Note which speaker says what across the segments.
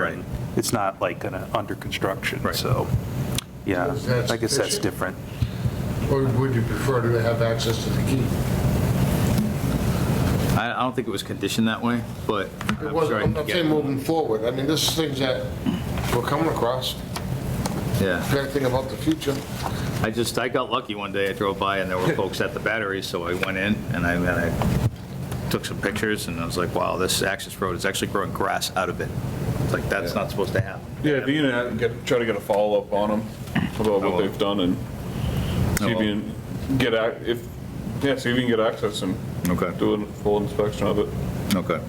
Speaker 1: Right.
Speaker 2: It's not like gonna- under construction,
Speaker 1: Right.
Speaker 2: so, yeah,
Speaker 3: Is that
Speaker 2: I guess that's
Speaker 3: sufficient?
Speaker 2: different.
Speaker 3: Or would you prefer to have access to the key?
Speaker 1: I, I don't think it was conditioned that way, but
Speaker 3: It
Speaker 1: I'm
Speaker 3: was,
Speaker 1: sure I
Speaker 3: I'm
Speaker 1: can
Speaker 3: I'm
Speaker 1: get
Speaker 3: saying
Speaker 1: it.
Speaker 3: moving forward, I mean, this is things that we're coming across,
Speaker 1: Yeah,
Speaker 3: Can't think about the future.
Speaker 1: I just, I got lucky one day, I drove by and there were folks at the battery, so I went in and I, and I took some pictures and I was like, wow, this access road is actually growing grass out of it. It's like, that's not supposed to happen.
Speaker 4: Yeah, if you can get, try to get a follow-up on them about
Speaker 1: I will.
Speaker 4: what they've done and see if
Speaker 1: will.
Speaker 4: you can get, ac- if, yeah, see if you can get access and
Speaker 1: Okay.
Speaker 4: do a full inspection of it.
Speaker 1: Okay.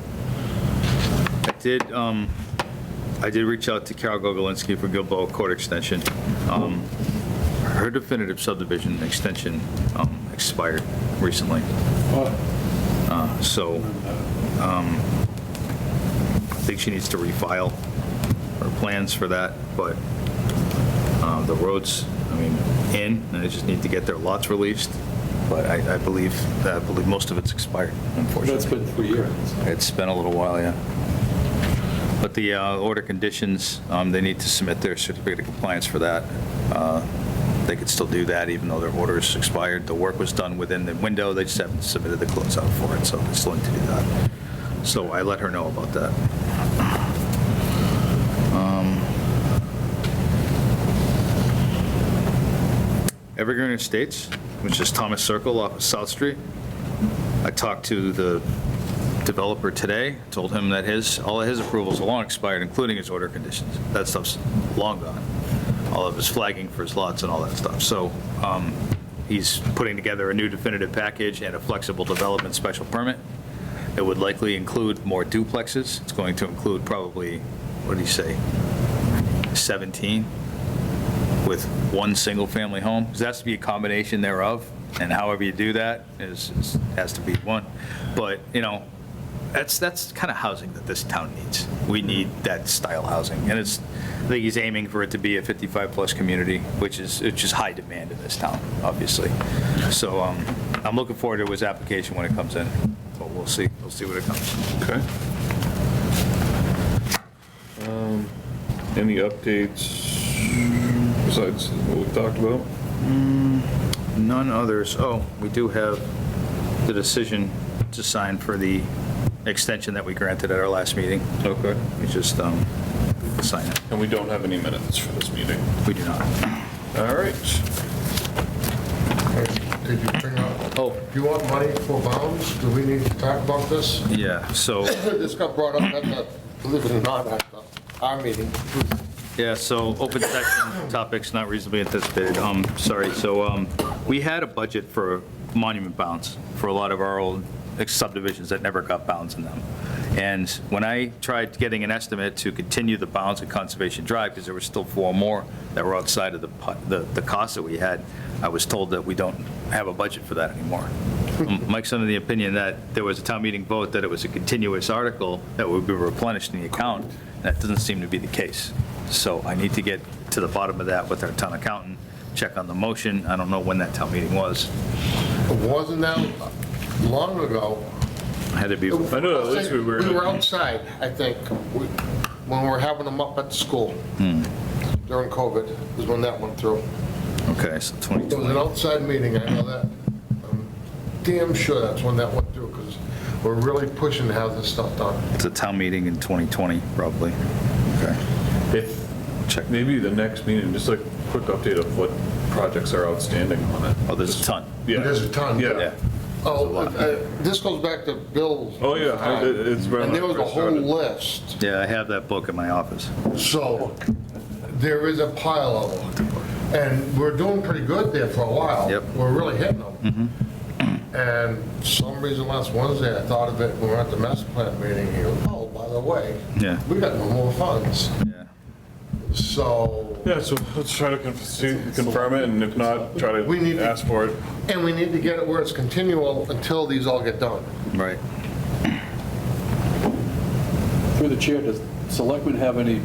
Speaker 1: I did, um, I did reach out to Carol Gogolinski for Gilboa Court Extension. Um, Her definitive subdivision extension um, expired recently. Uh, So um, I think she needs to refile her plans for that, but uh, the roads, I mean, in, and they just need to get their lots released, but I I believe, I believe most of it's expired, unfortunately.
Speaker 5: That's been three years.
Speaker 1: It's been a little while, yeah. But the uh, order conditions, um, they need to submit their certificate of compliance for that. Uh, They could still do that even though their order is expired. The work was done within the window, they just haven't submitted the closeout for it, so they still need to do that. So I let her know about that. Um, Evergreen Estates, which is Thomas Circle off of South Street. I talked to the developer today, told him that his, all of his approvals are long expired, including his order conditions. That stuff's long gone. All of his flagging for his lots and all that stuff. So um, he's putting together a new definitive package and a flexible development special permit. It would likely include more duplexes. It's going to include probably, what do you say, 17 with one single-family home. 'Cause It has to be a combination thereof, and however you do that is, is- has to be one. But, you know, that's, that's kind of housing that this town needs. We need that style housing. And it's, I think he's aiming for it to be a 55-plus community, which is, which is high demand in this town, obviously. So um, I'm looking forward to his application when it comes in, but we'll see, we'll see what it comes.
Speaker 4: Okay. Um, Any updates besides what we've talked about?
Speaker 1: None others. Oh, we do have the decision to sign for the extension that we granted at our last meeting.
Speaker 4: Okay.
Speaker 1: We just um, sign it.
Speaker 4: And we don't have any minutes for this meeting.
Speaker 1: We do not.
Speaker 4: All right.
Speaker 3: Did you bring up,
Speaker 1: Oh.
Speaker 3: do you want money for bounds? Do we need to talk about this?
Speaker 1: Yeah, so,
Speaker 3: This got brought up at the, believe it or not, at the- our meeting.
Speaker 1: yeah, so open section topics not reasonably anticipated. Um, sorry, so um, we had a budget for monument bounds for a lot of our old subdivisions that never got bounds in them. And when I tried getting an estimate to continue the bounds at Conservation Drive, because there were still four more that were outside of the, pu- the, the cost that we had, I was told that we don't have a budget for that anymore. Mike's under the opinion that there was a town meeting vote that it was a continuous article that would be replenished in the account. That doesn't seem to be the case. So I need to get to the bottom of that with our town accountant, check on the motion. I don't know when that town meeting was.
Speaker 3: Wasn't that long ago?
Speaker 1: Had to be,
Speaker 4: I know, at least we were-
Speaker 3: We were outside, I think, we- when we were having them up at the school
Speaker 4: Hmm.
Speaker 3: during COVID, is when that went through.
Speaker 1: okay, so
Speaker 3: It was
Speaker 1: 2020.
Speaker 3: an outside meeting, I know that. I'm Damn sure that's when that went through, because we're really pushing to have this stuff done.
Speaker 1: It's a town meeting in 2020, probably. Okay.
Speaker 4: If,
Speaker 1: Check.
Speaker 4: maybe the next meeting, just like quick update of what projects are outstanding on it.
Speaker 1: Oh, there's a ton.
Speaker 4: Yeah.
Speaker 3: There's a ton.
Speaker 4: Yeah.
Speaker 1: Yeah.
Speaker 3: Oh, uh, this goes back to Bill's.
Speaker 4: Oh, yeah, I- it- it's. right
Speaker 3: And there
Speaker 4: when
Speaker 3: was
Speaker 4: I
Speaker 3: a
Speaker 4: first
Speaker 3: whole
Speaker 4: started.
Speaker 3: list,
Speaker 1: Yeah, I have that book in my office.
Speaker 3: so there is a pile of them. And we're doing pretty good there for a while.
Speaker 1: Yep. Mm-hmm.
Speaker 3: We're really hitting them. And some reason last Wednesday, I thought of it, when we were at the master plan meeting here, oh, by the way,
Speaker 1: Yeah.
Speaker 3: we got no more funds.
Speaker 1: Yeah.
Speaker 3: So,
Speaker 4: Yeah, so let's try to con- see- confirm it, and if not, try
Speaker 3: We need
Speaker 4: to
Speaker 3: to-
Speaker 4: ask for it.
Speaker 3: and we need to get it where it's continual until these all get done.
Speaker 1: Right.
Speaker 5: Through the chair, does selectmen have any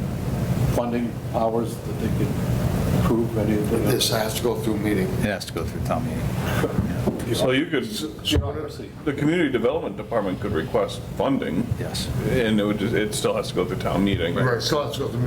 Speaker 5: funding powers that they could approve anything?
Speaker 3: This has to go through meeting.
Speaker 1: It has to go through town meeting.
Speaker 4: So you could,
Speaker 5: Bureaucracy.
Speaker 4: the community development department could request funding,
Speaker 1: Yes.
Speaker 4: and it would, just- it still has to go through town meeting.
Speaker 3: Right, so that's what the